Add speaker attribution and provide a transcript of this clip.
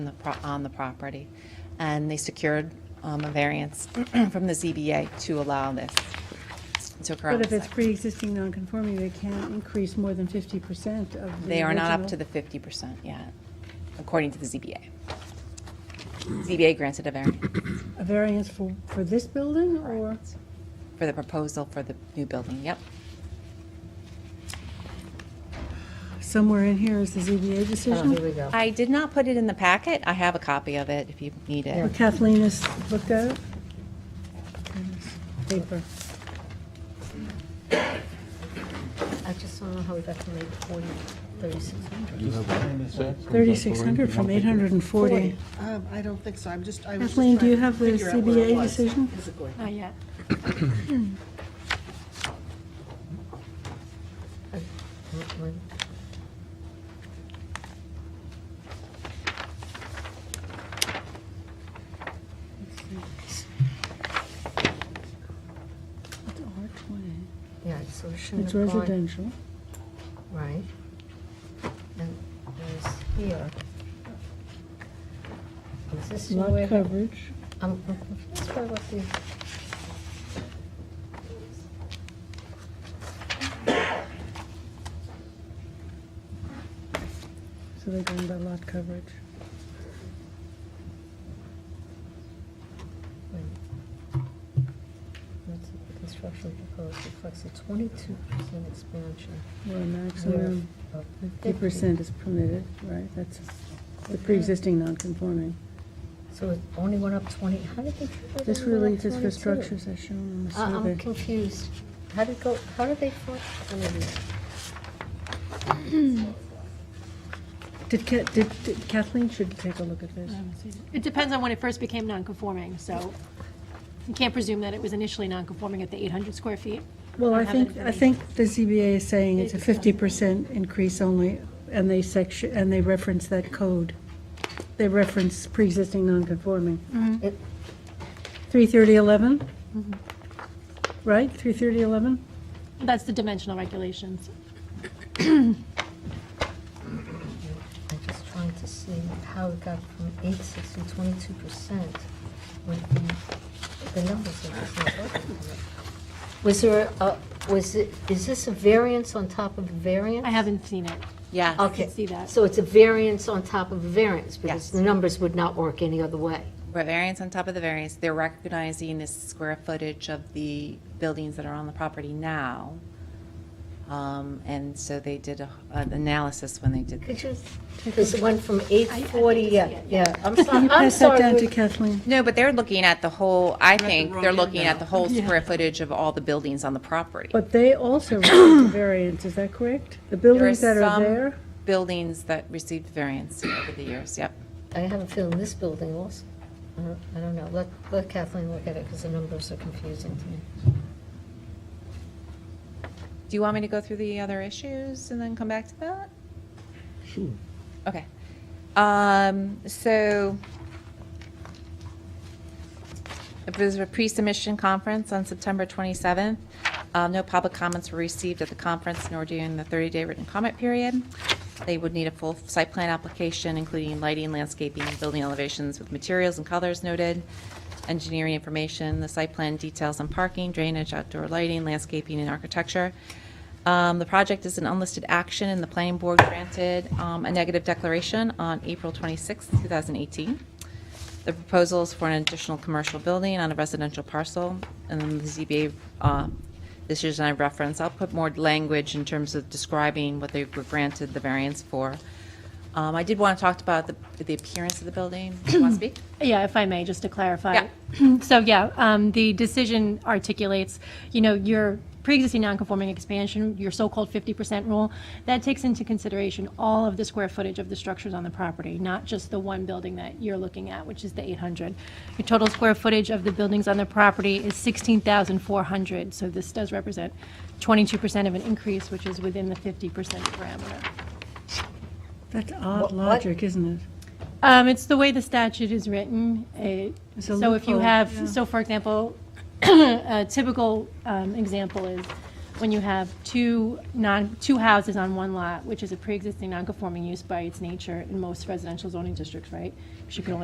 Speaker 1: on the pro- on the property. And they secured um, a variance from the ZBA to allow this to occur. on
Speaker 2: But
Speaker 1: the
Speaker 2: if it's
Speaker 1: site.
Speaker 2: pre-existing non-conforming, they can't increase more than 50% of the original.
Speaker 1: They are not up to the 50% yet, according to the ZBA. ZBA granted a variance
Speaker 2: A variance for, for this building, or?
Speaker 1: for the proposal for the new building, yep.
Speaker 2: Somewhere in here is the ZBA
Speaker 3: Oh, here we
Speaker 2: decision?
Speaker 3: go.
Speaker 1: I did not put it in the packet. I have a copy of it if you need
Speaker 2: Well,
Speaker 1: it.
Speaker 2: Kathleen has looked at it? Paper.
Speaker 3: I just don't know how we got to make 40, 3600.
Speaker 2: 3,600 from 840.
Speaker 4: Um, I don't think so, I'm just, I was just
Speaker 2: Kathleen, do you
Speaker 4: trying to
Speaker 2: have the
Speaker 4: figure out where it
Speaker 2: CBA
Speaker 4: was
Speaker 2: decision?
Speaker 4: physically.
Speaker 5: Not yet.
Speaker 2: It's R20.
Speaker 3: Yeah, so it shouldn't
Speaker 2: It's
Speaker 3: have gone-
Speaker 2: residential.
Speaker 3: Right. And there's here. Is this Um,
Speaker 2: Lot
Speaker 3: where-
Speaker 2: coverage.
Speaker 3: I'm I'm confused by mm, what the...
Speaker 2: So they're going by lot coverage.
Speaker 3: wait. Let's see, the Construction proposed reflects a 22% expansion.
Speaker 2: Where a
Speaker 3: where
Speaker 2: maximum
Speaker 3: of 50.
Speaker 2: 50% is permitted, right? That's the pre-existing non-conforming.
Speaker 3: So it only went up 20, how did they? figure it
Speaker 2: This
Speaker 3: only went up
Speaker 2: relief is for
Speaker 3: 22?
Speaker 2: structures as shown on the
Speaker 3: I- Uh, I'm
Speaker 2: survey.
Speaker 3: confused. How did go, how did they? fo- oh, wait a minute.
Speaker 2: Did Ca- did- did Kathleen should take a look at this.
Speaker 5: It depends on when it first became non-conforming, so you can't presume that it was initially non-conforming at the 800 square feet.
Speaker 2: Well, I
Speaker 5: have
Speaker 2: think, I
Speaker 5: information.
Speaker 2: think the ZBA is saying it's a fifty percent increase only, and they section, and they reference that code. They reference pre-existing non-conforming.
Speaker 3: It-
Speaker 2: Three thirty eleven? Right, three thirty eleven?
Speaker 5: That's the dimensional regulations.
Speaker 3: I'm just trying to see how it got from 86 to 22 percent when the- the numbers are just not working. Was there, a- was it, is this a variance on top of a variance?
Speaker 5: I haven't seen it.
Speaker 1: Yeah.
Speaker 3: Okay.
Speaker 5: see that.
Speaker 3: So it's a variance on top of a variance?
Speaker 1: Yes.
Speaker 3: Because the numbers would not work any other way.
Speaker 1: Variance on top of the variance, they're recognizing the square footage of the buildings that are on the property now. Um, And so they did a- an analysis when they did.
Speaker 3: Could you, because it went from 840,
Speaker 5: see
Speaker 3: yeah,
Speaker 5: it,
Speaker 3: yeah. I'm so- I'm sorry.
Speaker 2: Pass that down to
Speaker 3: we-
Speaker 2: Kathleen.
Speaker 1: No, but they're looking at the whole, I
Speaker 4: the
Speaker 1: think,
Speaker 4: wrong
Speaker 1: they're
Speaker 4: end
Speaker 1: looking at
Speaker 4: now.
Speaker 1: the whole square footage of all the buildings on the property.
Speaker 2: But they also reference a variance, is that correct? The buildings that are
Speaker 1: some
Speaker 2: there?
Speaker 1: Buildings that received variance over the years, yep.
Speaker 3: I have a feeling this building also, I don't- I don't know, let let Kathleen look at it, because the numbers are confusing to me.
Speaker 1: Do you want me to go through the other issues and then come back to that? Sure. Okay. Um, so it was a pre-submission conference on September 27th. Uh, no public comments were received at the conference nor during the 30-day written comment period. They would need a full site plan application, including lighting, landscaping, building elevations with materials and colors noted, engineering information, the site plan details on parking, drainage, outdoor lighting, landscaping, and architecture. Um, The project is an unlisted action, and the planning board granted um, a negative declaration on April 26, 2018. The proposal is for an additional commercial building on a residential parcel, and then the ZBA, uh, this is I reference, I'll put more language in terms of describing what they were granted the variance for. Um, I did want to talk about the, the appearance of the building. Do you want to speak?
Speaker 5: Yeah, if I may, just to clarify. So, yeah, um, the decision articulates, you know, your pre-existing non-conforming expansion, your so-called 50% rule, that takes into consideration all of the square footage of the structures on the property, not just the one building that you're looking at, which is the 800. Your total square footage of the buildings on the property is 16,400, so this does represent 22% of an increase, which is within the 50% parameter.
Speaker 2: That's
Speaker 3: What-
Speaker 2: odd
Speaker 3: what?
Speaker 2: logic, isn't it?
Speaker 5: Um, it's the way the statute is written. It-
Speaker 2: It's a
Speaker 5: So if you
Speaker 2: loophole,
Speaker 5: have,
Speaker 2: yeah.
Speaker 5: so for example, a typical um, example is when you have two non, two houses on one lot, which is a pre-existing non-conforming use by its nature in most residential zoning districts, right? 'Cause you can only